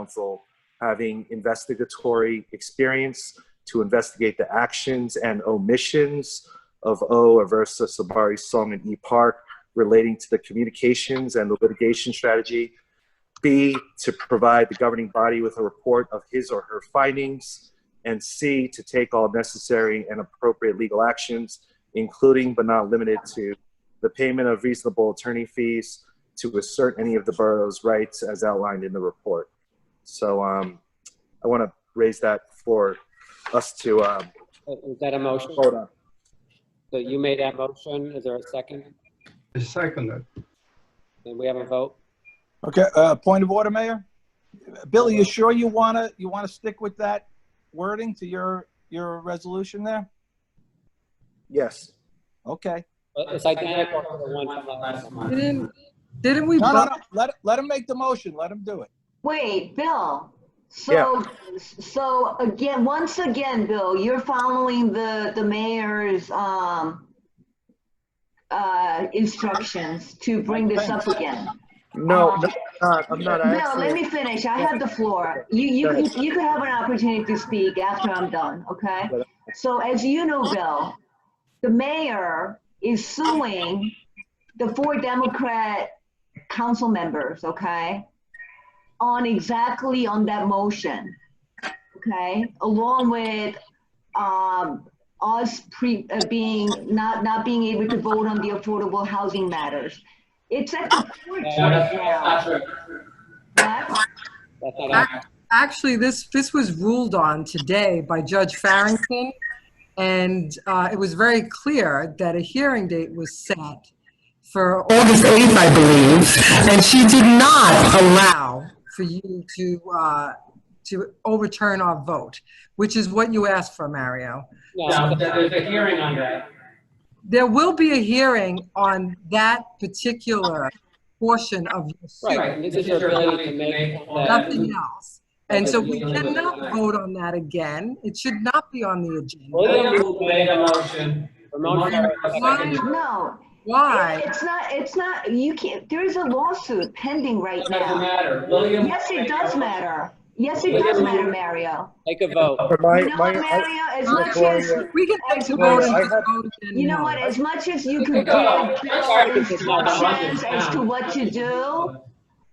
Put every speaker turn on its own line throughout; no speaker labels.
counsel having investigatory experience to investigate the actions and omissions of O. Aversa Sabari Song and E. Park relating to the communications and the litigation strategy. B, to provide the governing body with a report of his or her findings. And C, to take all necessary and appropriate legal actions, including but not limited to the payment of reasonable attorney fees to assert any of the borough's rights as outlined in the report. So um, I want to raise that for us to um,
Is that a motion?
vote on.
So you made that motion. Is there a second?
I seconded.
Then we have a vote?
Okay, uh, point of order, Mayor? Billy, you sure you want to, you want to stick with that wording to your, your resolution there?
Yes.
Okay.
Uh, It's identical to the one from last month.
Didn't, didn't we
No, no,
vote?
no, let, let him make the motion, let him do it.
Wait, Bill, so, so again, once again, Bill, you're following the, the mayor's, um, uh, instructions to bring this up again.
No, no, I'm not. I'm not. I
Oh. No, let
actually,
me finish. I have the floor. You, you,
Go ahead.
can- you can have an opportunity to speak after I'm done, okay? So as you know, Bill, the mayor is suing the four Democrat council members, okay? On exactly on that motion, okay? Along with, um, us pre, uh, being, not, not being able to vote on the affordable housing matters. It's at the court
Uh,
right now. What?
That's not accurate.
Actually, this, this was ruled on today by Judge Farrington, and uh, it was very clear that a hearing date was set for August 8th, I believe, and she did not allow for you to, uh, to overturn our vote, which is what you asked for, Mario.
No, there's a hearing on that.
There will be a hearing on that particular portion of your suit,
Right, this is your ability to make that.
nothing else. And so we cannot vote on that again. It should not be on the agenda.
William made a motion. Ramon seconded.
No,
Why?
it's not, it's not, you can't, there is a lawsuit pending right now.
matter. William.
Yes, it does matter. Yes, it does matter, Mario.
Take a vote.
for
You
my,
know
my,
what,
I,
Mario, as much as,
Gloria,
We can take the vote and just vote again.
you know
now.
what, as much as you could give
Go.
Bill instructions as to what to do,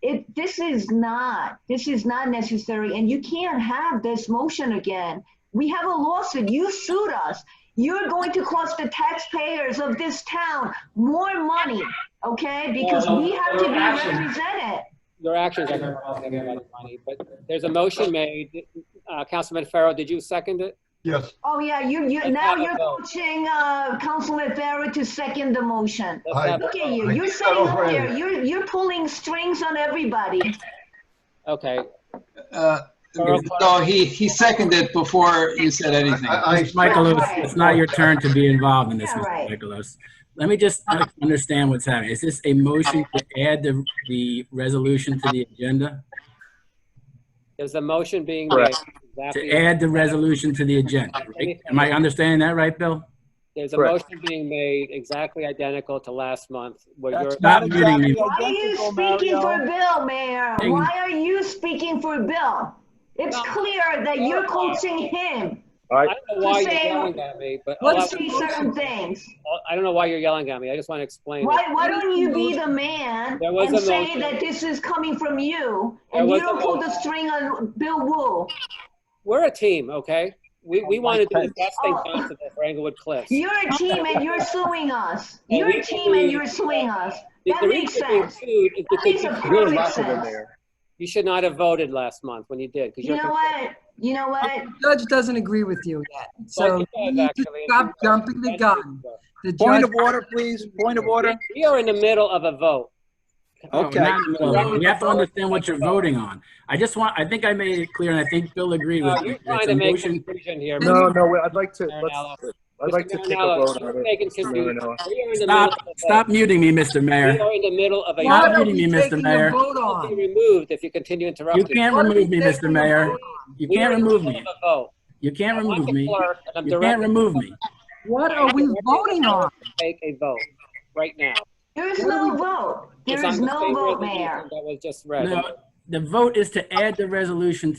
it, this is not, this is not necessary, and you can't have this motion again. We have a lawsuit, you sued us, you're going to cost the taxpayers of this town more money, okay? Because we have to be represented.
Your actions are costing everybody money, but there's a motion made. Uh, Councilman Farrow, did you second it?
Yes,
Oh, yeah, you, you,
Let's
now
have a
you're
vote.
coaching, uh, Councilman Farrow to second the motion.
Let's
Aye.
have a
Look at
vote.
you,
I
you're
think
sitting
that'll
up there,
win.
you're, you're pulling strings on everybody.
Okay.
Uh, No, he, he seconded before you said anything.
I, I,
Michaelos, it's not your turn to be involved in this,
Yeah, right.
Mr. Michaelos. Let me just uh, understand what's happening. Is this a motion to add the, the resolution to the agenda?
There's a motion being made.
Correct.
To
Exactly.
add the resolution to the agenda, right? Am I understanding that right, Bill?
There's a
Correct.
motion being made exactly identical to last month. Where you're,
That's not
Stop muting me.
exactly
Why are you
identical,
speaking for
Mario.
Bill, Mayor?
Ding.
Why are you speaking for Bill? It's clear that
uh,
you're coaching him
I don't know why you're
Just saying-
yelling at me, but all
to
I
What's-
say certain things.
I don't know why you're yelling at me. I just want to explain. it.
Why, why don't you be the man
There was
and
a
say
motion.
that this is coming from you
There
and you
was a
don't pull the
motion.
string on Bill Wu?
We're a team, okay? We, we want to do the best thing
Oh.
possible for Englewood Cliffs.
You're a team and you're suing us.
And
You're
we
a team and
believe-
you're suing us.
The-
That
the
makes
reason we
sense.
sued is
That
because
makes a
you-
you're
perfect
laughing in
sense.
there.
You should not have voted last month when you did. 'cause
You
you're
know what? You know what?
Judge doesn't agree with you yet, so
Well,
you
he does,
need to
actually, and
stop
he does.
jumping the gun. The
Point
judge,
of order, please, point of order.
We are in the middle of a vote.
Okay.
Not in the middle of it. We have to understand what you're voting on. I just want, I think I made it clear, and I think Bill agreed with
Uh,
me.
You're
It's
trying
a
to make
motion-
a decision here.
No,
Mr.
No, no, I'd like to,
Marinello.
let's, I'd like to take a
Marinello,
vote on
you're
it.
making
Mr.
confusion.
Marinello.
We are in the middle
Stop,
of a
stop
vote.
muting me, Mr.
We
Mayor.
are in the middle of a.
what
Stop
are we
muting me, Mr.
taking
Mayor.
a vote
Be
on?
removed if you continue
You
interrupting.
can't
What are we
remove me,
taking a
Mr. Mayor.
vote on?
You
We are
can't
in the
remove
middle
me.
of a vote.
You can't
I'm
remove
the
me.
clerk, and I'm
You can't
directing
remove me.
What are we voting on?
Take a vote right now.
There is no vote.
It's
There
on
is
the
no
same
vote,
resolution
Mayor.
That was just read.
No, the vote is to add the resolution to